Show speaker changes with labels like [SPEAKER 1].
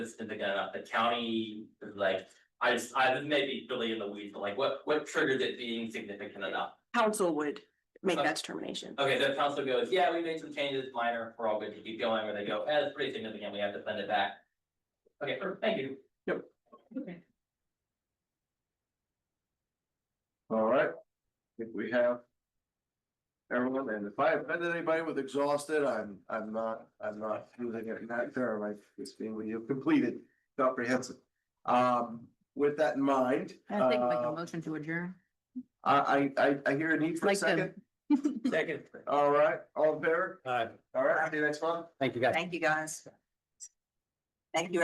[SPEAKER 1] this in the, uh, the county, like, I just, I this may be really in the weeds, but like, what, what triggered it being significant enough?
[SPEAKER 2] council would make
[SPEAKER 1] Okay.
[SPEAKER 2] that determination.
[SPEAKER 1] Okay, the council goes, yeah, we made some changes, minor, we're all good to keep going, or they go, eh, it's pretty significant, we have to send it back. Okay, perfect, thank you.
[SPEAKER 3] All right, if we have. Everyone, and if I offended anybody with exhausted, I'm, I'm not, I'm not using it in that term, I, it's being, when you've completed, comprehensive. Um, with that in mind,
[SPEAKER 4] I think like a
[SPEAKER 3] uh,
[SPEAKER 4] motion to adjourn.
[SPEAKER 3] I, I, I, I hear a need for a
[SPEAKER 4] Like the-
[SPEAKER 3] second,
[SPEAKER 5] Second.
[SPEAKER 3] all right, all in favor?
[SPEAKER 5] All right.
[SPEAKER 3] All right, see you next month.
[SPEAKER 5] Thank you, guys.
[SPEAKER 4] Thank you, guys.
[SPEAKER 2] Thank you,